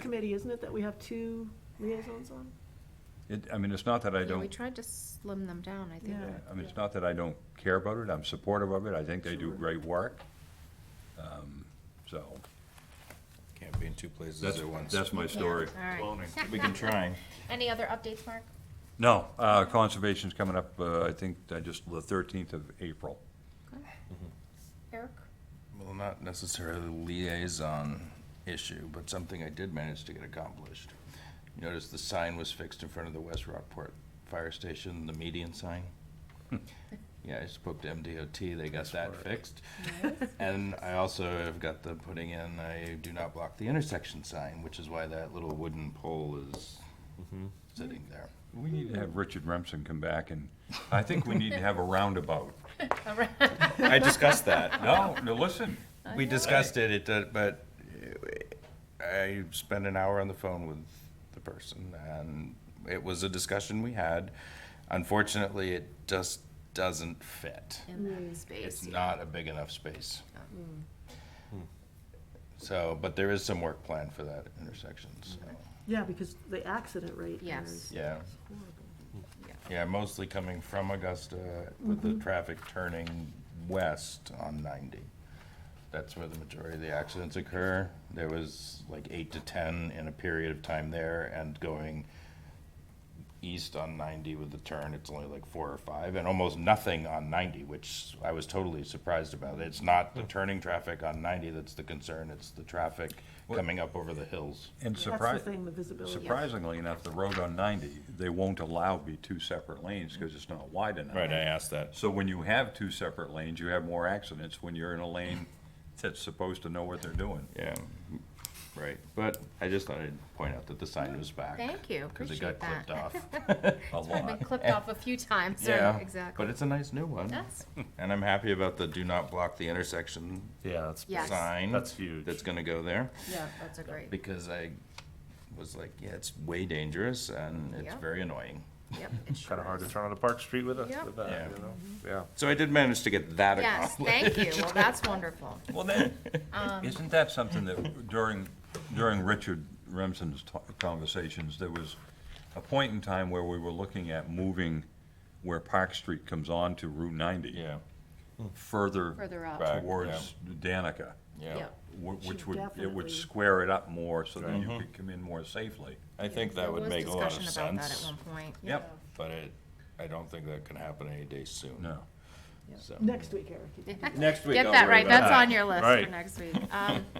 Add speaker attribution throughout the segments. Speaker 1: committee, isn't it, that we have two liaisons on?
Speaker 2: It, I mean, it's not that I
Speaker 3: Yeah, we
Speaker 2: don't,
Speaker 3: tried to slim them down, I think.
Speaker 1: Yeah.
Speaker 2: I mean, it's not that I don't care about it, I'm supportive of it, I think they do
Speaker 1: Sure.
Speaker 2: great work. Um, So,
Speaker 4: Can't be in two places
Speaker 2: that's,
Speaker 4: at once.
Speaker 2: that's my story.
Speaker 3: Yeah, All right.
Speaker 4: We can try.
Speaker 3: Any other updates, Mark?
Speaker 2: No, uh, conservation's coming up, uh, I think, I just, the thirteenth of April.
Speaker 3: Mm-hmm. Eric?
Speaker 4: Well, not necessarily a liaison issue, but something I did manage to get accomplished. You Notice the sign was fixed in front of the West Rockport Fire Station, the median sign. Yeah, I spoke to MDOT, they got that fixed. And I also have got the putting in a do not block the intersection sign, which is why that little wooden pole is
Speaker 2: Mm-hmm.
Speaker 4: sitting there.
Speaker 2: We need to have Richard Remsen come back and, I think we need to have a roundabout.
Speaker 3: All right.
Speaker 4: I discussed that.
Speaker 2: No, no, listen,
Speaker 4: We discussed it, it, uh, but uh, I spent an hour on the phone with the person, and it was a discussion we had. Unfortunately, it just doesn't fit.
Speaker 3: In that
Speaker 4: It's
Speaker 3: space. yeah.
Speaker 4: not a big enough space. So, but there is some work planned for that intersection, so,
Speaker 1: Yeah, because the accident rate there
Speaker 3: Yes.
Speaker 1: is
Speaker 4: yeah.
Speaker 1: horrible.
Speaker 4: Yeah, mostly coming from Augusta with the traffic turning west on 90. That's where the majority of the accidents occur. There was like eight to 10 in a period of time there and going east on 90 with the turn, it's only like four or five and almost nothing on 90, which I was totally surprised about. It's not the turning traffic on 90 that's the concern, it's the traffic
Speaker 2: What-
Speaker 4: coming up over the hills.
Speaker 2: and
Speaker 1: That's
Speaker 2: surprise,
Speaker 1: the thing, the visibility.
Speaker 2: surprisingly enough, the road on ninety, they won't allow be two separate lanes, cause it's not wide enough.
Speaker 4: asked that.
Speaker 2: So when you have two separate lanes, you have more accidents when you're in a lane that's supposed to know what they're doing.
Speaker 4: Yeah, right, but I just thought I'd point out that the sign was back.
Speaker 3: Thank you,
Speaker 4: Because it got
Speaker 3: appreciate
Speaker 4: clipped off.
Speaker 2: A
Speaker 3: It's probably
Speaker 2: lot.
Speaker 3: been clipped off a few times,
Speaker 4: Yeah,
Speaker 3: right, exactly.
Speaker 4: but it's a nice new one.
Speaker 3: That's-
Speaker 4: And I'm happy about the do not block the intersection
Speaker 5: Yeah, that's
Speaker 3: Yes.
Speaker 4: sign.
Speaker 5: That's huge.
Speaker 4: That's gonna go there,
Speaker 3: Yeah, that's a great,
Speaker 4: because I was like, yeah, it's way dangerous and it's
Speaker 3: Yeah.
Speaker 4: very annoying.
Speaker 3: yep, it sure
Speaker 5: kind of hard to
Speaker 3: is.
Speaker 5: turn on a Park Street with, a,
Speaker 3: Yep.
Speaker 5: with that,
Speaker 4: Yeah. Mm-hmm.
Speaker 5: you know? Yeah.
Speaker 4: So I did manage to get that
Speaker 3: Yes,
Speaker 4: accomplished.
Speaker 3: thank you. Well, that's wonderful.
Speaker 2: Well, then,
Speaker 3: Um,
Speaker 2: isn't that something that during, during Richard Remsen's to- conversations, there was a point in time where we were looking at moving where Park Street comes on to Route ninety.
Speaker 4: Yeah,
Speaker 2: Further.
Speaker 3: Further up.
Speaker 4: Back,
Speaker 2: Towards Danica,
Speaker 4: yeah.
Speaker 3: Yep.
Speaker 2: wh- which
Speaker 1: Should
Speaker 2: would, it
Speaker 1: definitely-
Speaker 2: would square it up more so that you
Speaker 4: Mm-hmm.
Speaker 2: could come in more safely.
Speaker 4: I think
Speaker 3: There was discussion about that at one point.
Speaker 2: Yep.
Speaker 4: but it, I don't think that can happen any day soon.
Speaker 2: No.
Speaker 4: So-
Speaker 1: Next week, Eric. you can-
Speaker 4: Next week,
Speaker 3: Get
Speaker 4: I'll
Speaker 3: that
Speaker 4: worry
Speaker 3: right,
Speaker 4: about
Speaker 3: that's
Speaker 4: that.
Speaker 3: on your list for
Speaker 5: Right.
Speaker 3: next week. Um,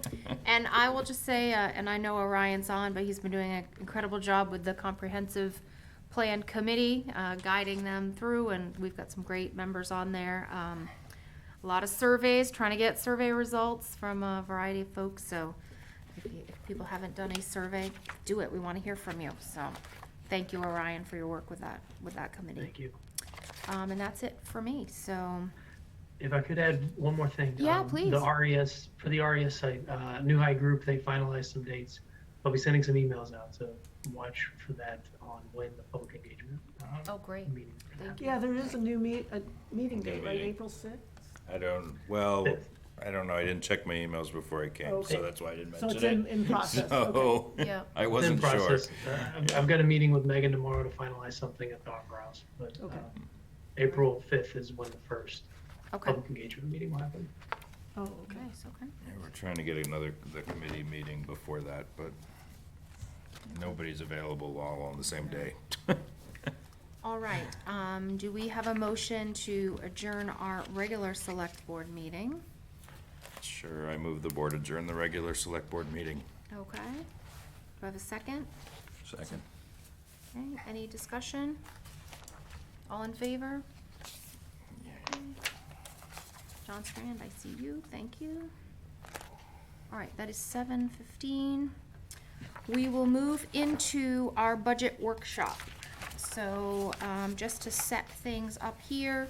Speaker 3: And I will just say, uh, and I know Orion's on, but he's been doing an incredible job with the comprehensive plan committee, uh, guiding them through, and we've got some great members on there. Um, A lot of surveys, trying to get survey results from a variety of folks, so if you- if people haven't done a survey, do it, we want to hear from you. So, thank you, Orion, for your work with that, with that committee.
Speaker 6: Thank you.
Speaker 3: Um, And that's it for me, so,
Speaker 6: If I could add one more thing.
Speaker 3: Yeah,
Speaker 6: um,
Speaker 3: please.
Speaker 6: The RES, for the RES site, uh, New High Group, they finalized some dates. I'll be sending some emails out, so watch for that on when the public engagement uh,
Speaker 4: Uh-huh.
Speaker 3: oh, great.
Speaker 6: meeting.
Speaker 3: Thank you.
Speaker 1: Yeah, there is a new meet, a meeting date, right,
Speaker 4: meeting.
Speaker 1: April sixth?
Speaker 4: I don't, well, I don't know, I didn't check my emails before I came,
Speaker 1: Okay.
Speaker 4: so that's why I didn't
Speaker 1: So it's in,
Speaker 4: mention it.
Speaker 1: in process, okay.
Speaker 4: So,
Speaker 3: Yeah.
Speaker 4: I
Speaker 6: It's in
Speaker 4: wasn't sure.
Speaker 6: process. Uh, I've- I've got a meeting with Megan tomorrow to finalize something at the Opera House, but
Speaker 1: Okay.
Speaker 6: um, April 5th is when the first
Speaker 3: Okay.
Speaker 6: public engagement meeting will happen.
Speaker 1: Oh, okay.
Speaker 3: Nice, okay.
Speaker 4: Yeah, We're trying to get another, the committee meeting before that, but nobody's available all on the same day.
Speaker 3: All right, um, do we have a motion to adjourn our regular select board meeting?
Speaker 4: Sure, I move the board adjourn the regular select board meeting.
Speaker 3: Okay. Do I have a second?
Speaker 2: Second.
Speaker 3: Okay, Any discussion? All in favor? John Strand, I see you, thank you. All right, that is seven fifteen. We will move into our budget workshop. So, um, just to set things up here,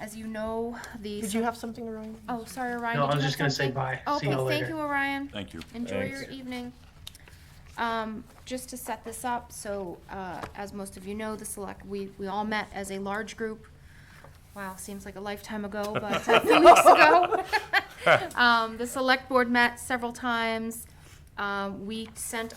Speaker 3: as you know, the.
Speaker 1: Did you have something, Ryan?
Speaker 3: Oh, sorry, Orion.
Speaker 6: No,
Speaker 3: did
Speaker 6: I
Speaker 3: you
Speaker 6: was
Speaker 3: have
Speaker 6: just gonna say
Speaker 3: something?
Speaker 6: bye. See y'all
Speaker 3: Okay, thank
Speaker 6: later.
Speaker 3: you, Orion.
Speaker 2: Thank you.
Speaker 3: Enjoy your
Speaker 4: Thanks.
Speaker 3: evening. Um, just to set this up, so, uh, as most of you know, the select, we, we all met as a large group. Wow, seems like a lifetime ago, but a few weeks ago. Um, the select board met several times. Um, we sent